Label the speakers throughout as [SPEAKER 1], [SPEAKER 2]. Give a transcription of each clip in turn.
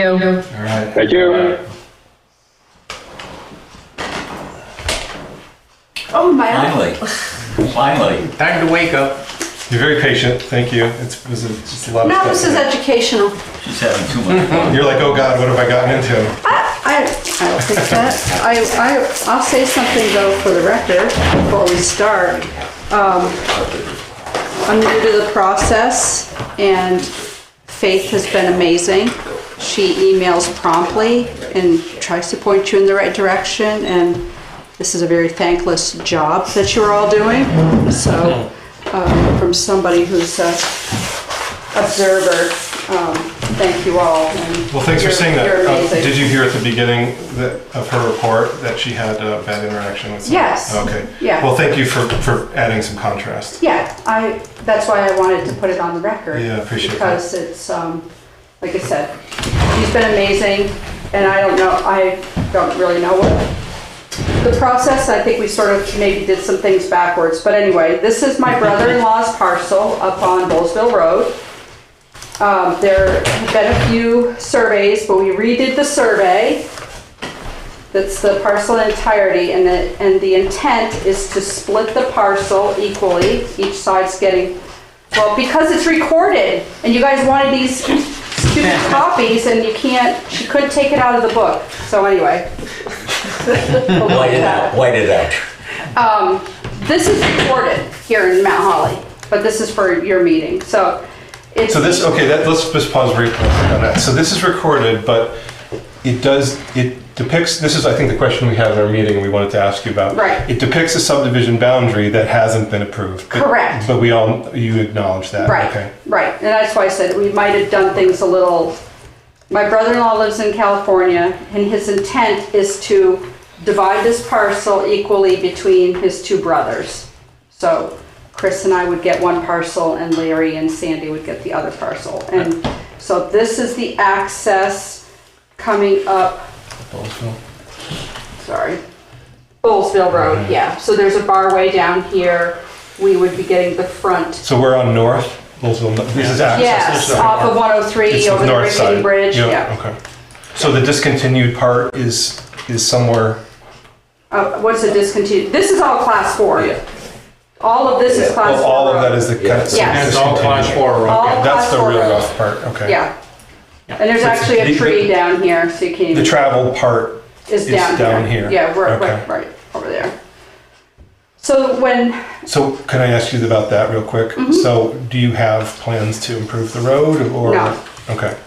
[SPEAKER 1] you.
[SPEAKER 2] All right.
[SPEAKER 3] Thank you.
[SPEAKER 4] Uh,
[SPEAKER 5] Oh, my eye.
[SPEAKER 6] Finally, finally.
[SPEAKER 2] Time to wake up.
[SPEAKER 4] You're very patient. Thank you. It's, it was a, it's a lot of
[SPEAKER 5] No,
[SPEAKER 4] stuff.
[SPEAKER 5] this is educational.
[SPEAKER 6] She's having too much fun.
[SPEAKER 4] You're like, oh God, what have I gotten into?
[SPEAKER 5] I, I'll fix that. I, I, I'll say something though for the record before we start. Um, I'm new to the process and Faith has been amazing. She emails promptly and tries to point you in the right direction and this is a very thankless job that you're all doing. So, um, from somebody who's a observer, um, thank you all. and
[SPEAKER 4] Well, thanks for
[SPEAKER 5] you're-
[SPEAKER 4] saying that.
[SPEAKER 5] You're
[SPEAKER 4] Uh,
[SPEAKER 5] amazing.
[SPEAKER 4] did you hear at the beginning that, of her report that she had a bad interaction with someone?
[SPEAKER 5] Yes.
[SPEAKER 4] Okay.
[SPEAKER 5] Yeah.
[SPEAKER 4] Well, thank you for, for adding some contrast.
[SPEAKER 5] Yeah, I, that's why I wanted to put it on the record.
[SPEAKER 4] Yeah, appreciate that.
[SPEAKER 5] Because it's, um, like I said, he's been amazing, and I don't know, I don't really know what the process, I think we sort of maybe did some things backwards, but anyway, this is my brother-in-law's parcel up on Bowlesville Road. Um, there have been a few surveys, but we redid the survey. That's the parcel in entirety, and the, and the intent is to split the parcel equally. Each side's getting, well, because it's recorded, and you guys wanted these stupid copies, and you can't, she couldn't take it out of the book, so anyway. We'll look at
[SPEAKER 6] White it
[SPEAKER 5] that.
[SPEAKER 6] out, white it out.
[SPEAKER 5] Um, this is recorded here in Mount Holly, but this is for your meeting, so it's.
[SPEAKER 4] So this, okay, that, let's just pause briefly on that. So this is recorded, but it does, it depicts, this is, I think, the question we had in our meeting we wanted to ask you about.
[SPEAKER 5] Right.
[SPEAKER 4] It depicts a subdivision boundary that hasn't been approved. but-
[SPEAKER 5] Correct.
[SPEAKER 4] But we all, you acknowledge that.
[SPEAKER 5] Right,
[SPEAKER 4] Okay.
[SPEAKER 5] right, and that's why I said we might have done things a little, my brother-in-law lives in California, and his intent is to divide this parcel equally between his two brothers. So Chris and I would get one parcel, and Larry and Sandy would get the other parcel. And so this is the access coming up sorry. Bowlesville Road, yeah. So there's a bar way down here. We would be getting the front.
[SPEAKER 4] So we're on north, Louisville, this is access.
[SPEAKER 5] Yes, off of 103
[SPEAKER 4] It's
[SPEAKER 5] over the
[SPEAKER 4] north
[SPEAKER 5] Rickety
[SPEAKER 4] side.
[SPEAKER 5] Bridge, yeah.
[SPEAKER 4] Okay. So the discontinued part is, is somewhere,
[SPEAKER 5] Uh, What's a discontinued? This is all class four.
[SPEAKER 6] Yeah.
[SPEAKER 5] All of this is class
[SPEAKER 4] well,
[SPEAKER 5] four.
[SPEAKER 4] all of that
[SPEAKER 5] road.
[SPEAKER 4] is the kind of.
[SPEAKER 5] Yeah. Yes.
[SPEAKER 2] And it's all class
[SPEAKER 4] discontinued.
[SPEAKER 2] four road.
[SPEAKER 5] All
[SPEAKER 4] Okay,
[SPEAKER 5] class
[SPEAKER 4] That's the
[SPEAKER 5] four
[SPEAKER 4] real
[SPEAKER 5] road.
[SPEAKER 4] rough part, okay.
[SPEAKER 5] Yeah. And there's actually
[SPEAKER 4] The-
[SPEAKER 5] a
[SPEAKER 4] the-
[SPEAKER 5] tree down here, so you can't,
[SPEAKER 4] The
[SPEAKER 5] even-
[SPEAKER 4] travel part
[SPEAKER 5] is
[SPEAKER 4] is
[SPEAKER 5] down here.
[SPEAKER 4] down here.
[SPEAKER 5] Yeah, we're,
[SPEAKER 4] Okay.
[SPEAKER 5] right, right, over there. So when,
[SPEAKER 4] So can I ask you about that real quick?
[SPEAKER 5] Mm-hmm.
[SPEAKER 4] So do you have plans to improve the road or?
[SPEAKER 5] No.
[SPEAKER 4] Okay,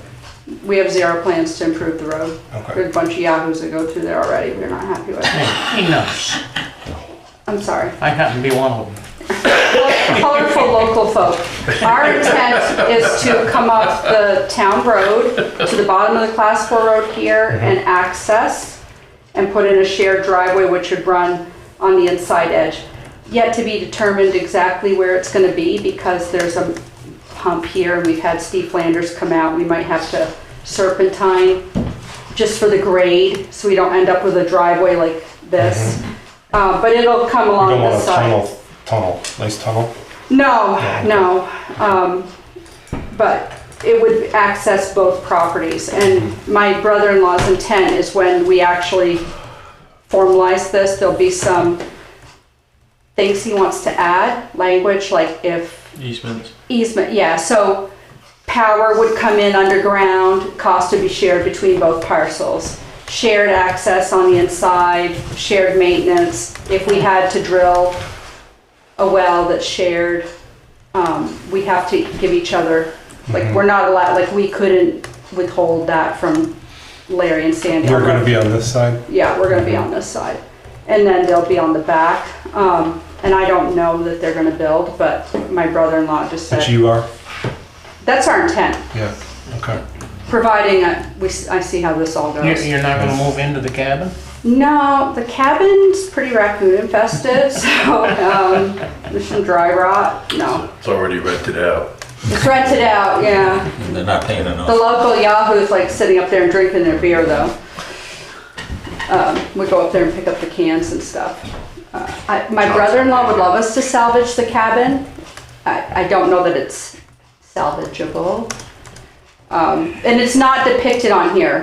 [SPEAKER 5] we have zero plans to improve the road. There's
[SPEAKER 4] okay.
[SPEAKER 5] a bunch of yahoos that go through there already. We're not happy with it.
[SPEAKER 2] He knows.
[SPEAKER 5] I'm sorry.
[SPEAKER 2] I happen to be one of them.
[SPEAKER 5] colorful local folk. Our intent is to come up the town road to the bottom of the class four road here
[SPEAKER 4] Mm-hmm.
[SPEAKER 5] and access and put in a shared driveway which would run on the inside edge. Yet to be determined exactly where it's gonna be because there's a hump here and we've had Steve Flanders come out. We might have to serpentine just for the grade, so we don't end up with a driveway like this. Uh, but it'll come
[SPEAKER 4] You
[SPEAKER 5] along
[SPEAKER 4] Mm-hmm. don't want
[SPEAKER 5] the
[SPEAKER 4] a
[SPEAKER 5] side.
[SPEAKER 4] tunnel, tunnel, nice tunnel?
[SPEAKER 5] No,
[SPEAKER 4] Yeah.
[SPEAKER 5] no, um, but it would access both properties. And my brother-in-law's intent is when we actually formalize this, there'll be some things he wants to add, language like if
[SPEAKER 2] Easements.
[SPEAKER 5] easement, yeah, so power would come in underground, cost to be shared between both parcels. Shared access on the inside, shared maintenance, if we had to drill a well that's shared, um, we have to give each other, like, we're not allowed, like, we couldn't withhold that from Larry and Sandy.
[SPEAKER 4] We're gonna be on this side?
[SPEAKER 5] Yeah, we're gonna be on this side. And then they'll be on the back. Um, and I don't know that they're gonna build, but my brother-in-law just
[SPEAKER 4] But
[SPEAKER 5] said,
[SPEAKER 4] you are?
[SPEAKER 5] that's our intent,
[SPEAKER 4] Yeah, okay.
[SPEAKER 5] providing I, we, s- I see how this all
[SPEAKER 2] You're,
[SPEAKER 5] goes.
[SPEAKER 2] you're not gonna move into the cabin?
[SPEAKER 5] No, the cabin's pretty raccoon infested, so, um, there's some dry rot, no.
[SPEAKER 7] It's already rented out.
[SPEAKER 5] It's rented out, yeah.
[SPEAKER 6] And they're not paying
[SPEAKER 5] The
[SPEAKER 6] enough.
[SPEAKER 5] local Yahoo's like sitting up there and drinking their beer though. Um, we go up there and pick up the cans and stuff. Uh, I, my brother-in-law would love us to salvage the cabin. I, I don't know that it's salvageable. Um, And it's not depicted on here,